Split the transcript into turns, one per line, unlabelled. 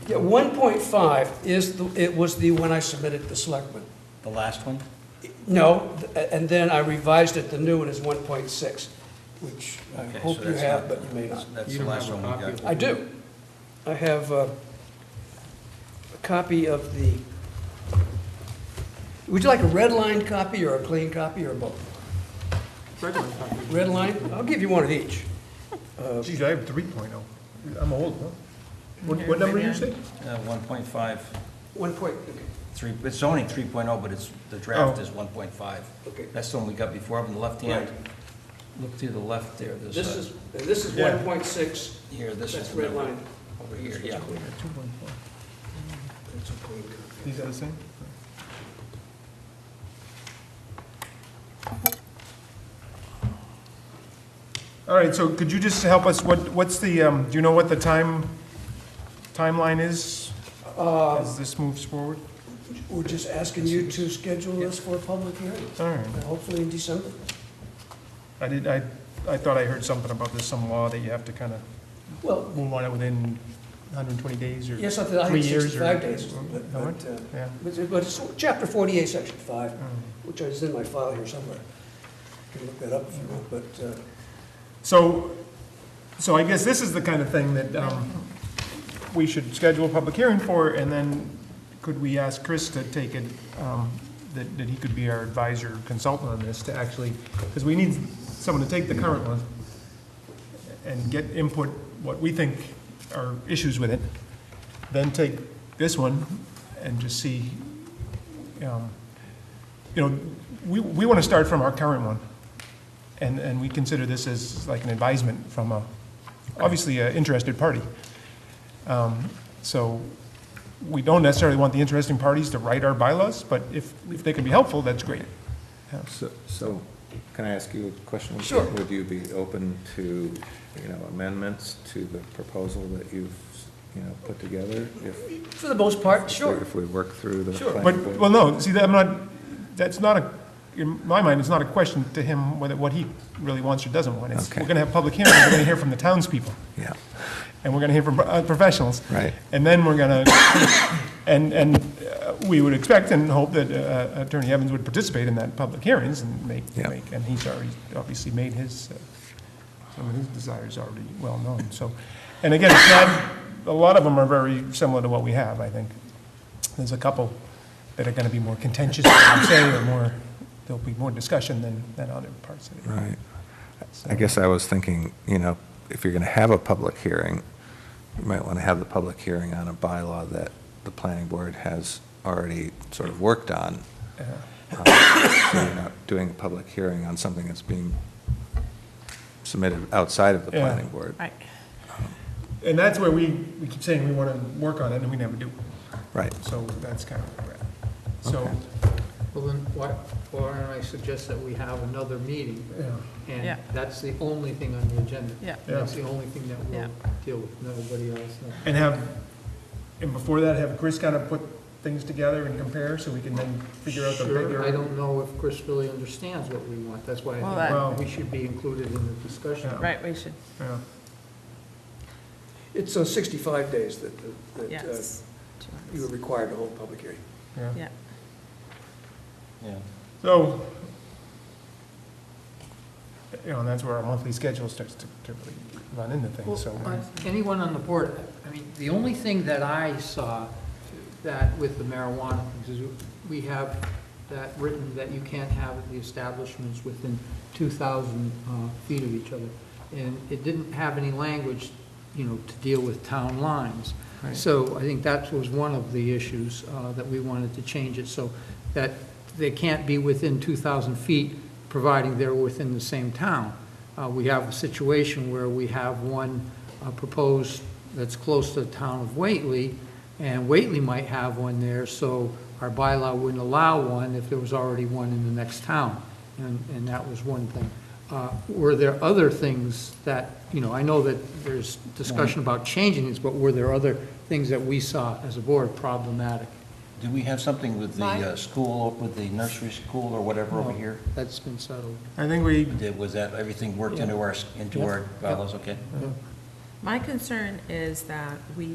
Yeah, 1.5 is, the it was the one I submitted to selectmen.
The last one?
No, th- and then I revised it, the new one is 1.6, which I
Okay, so
hope you
that's
have,
not-
but you may not.
That's
You
the
don't
last
have
one
a
we
copy of
got.
it?
I do. I have uh, a copy of the, would you like a red line copy or a clean copy or both?
Fred might talk to you.
Red line, I'll give you one of each. Uh,
Geez, I have three point oh. I'm old, huh? What, what number did you say?
Uh, 1.5,
One point, okay.
three- it's only 3.0, but it's, the draft
Oh.
is 1.5.
Okay.
That's the one we got before, up on the left hand. Look to the left there, there's
This
a,
is, this is
Yeah.
1.6,
here, this is
that's
the
red
number.
line.
Over here, yeah.
Two point four.
That's a clean copy.
These are the same? All right, so could you just help us, what, what's the, um, do you know what the time, timeline is? As this moves forward?
Um, We're just asking you to schedule this for a public hearing,
All right,
and hopefully in December.
I did, I, I thought I heard something about there's some law that you have to kind of
Well,
move on it within hundred and twenty days or?
yes, I thought I
Three
had
years or-
65 days, but,
How much?
but, uh,
Yeah.
but it- but it's chapter 48, section 5,
Mm.
which is in my file here somewhere. You can look that up if you want, but, uh,
So, so I guess this is the kind of thing that um, we should schedule a public hearing for, and then could we ask Chris to take it, um, that, that he could be our advisor consultant on this to actually, because we need someone to take the current one and get input, what we think are issues with it, then take this one and just see, um, you know, we, we want to start from our current one. And, and we consider this as like an advisement from a, obviously, an interested party. Um, So we don't necessarily want the interesting parties to write our bylaws, but if, if they can be helpful, that's great.
So, so can I ask you a question?
Sure.
Would you be open to, you know, amendments to the proposal that you've, you know, put together? If
for the most part, sure.
If we work through the.
Sure.
planning
But,
board?
well, no, see, that- I'm not, that's not a, in my mind, it's not a question to him whether, what he really wants or doesn't want. It's,
Okay.
we're gonna have public hearings, we're gonna hear from the townspeople,
Yeah,
and we're gonna hear from uh, professionals.
right.
And then we're going to, and, and uh, we would expect and hope that uh, Attorney Evans would participate in that public hearings and make,
Yeah.
make, and he's already obviously made his, uh, some of his desires already well known, so. And again, it's not, a lot of them are very similar to what we have, I think. There's a couple that are going to be more contentious, I would say, or more, there'll be more discussion than, than other parts of it.
Right.
So-
I guess I was thinking, you know, if you're going to have a public hearing, you might want to have the public hearing on a bylaw that the planning board has already sort of worked on. Um,
Uh,
So you're not doing a public hearing on something that's being submitted outside of the
Yeah.
planning board.
Right.
And that's where we, we keep saying we want to work on it, and we never do.
Right.
So that's kind of where we're at. So,
Okay.
Well, then, why, why don't I suggest that we have another meeting?
yeah.
And
Yeah.
that's the only thing on the agenda.
Yeah.
And That's the only thing that
Yeah.
we'll deal with, nobody else. no.
and have, and before that, have Chris kind of put things together and compare, so we can then figure out the
Sure, I
bigger.
don't know if Chris really understands what we want, that's why
Well,
I
that-
Well-
think we should be included in the discussion.
Oh.
Yeah.
Right, we should,
Yeah.
It's uh, 65 days that, that uh,
yes.
you were required to hold a public hearing.
Yeah.
Yeah.
Yeah.
So, you know, and that's where our monthly schedule starts to to really run into
Well,
things, so.
uh, Anyone on the board, I mean, the only thing that I saw that with the marijuana, is we have that written that you can't have the establishments within 2,000 uh, feet of each other. And it didn't have any language, you know, to deal with town lines.
Right.
So I think that was one of the issues uh, that we wanted to change it, so that they can't be within 2,000 feet, providing they're within the same town. Uh, We have a situation where we have one uh, proposed that's close to the town of Whately, and Whately might have one there, so our bylaw wouldn't allow one if there was already one in the next town, and, and that was one thing. Uh, Were there other things that, you know, I know that there's discussion about changing these, but were there other things that we saw as a board problematic?
Do we have something with the
Mine?
uh, school, with the nursery school or whatever over
No.
here?
That's been settled.
I think we,
Did- Was that, everything worked into our, into
Yeah.
our bylaws, okay?
My concern is that we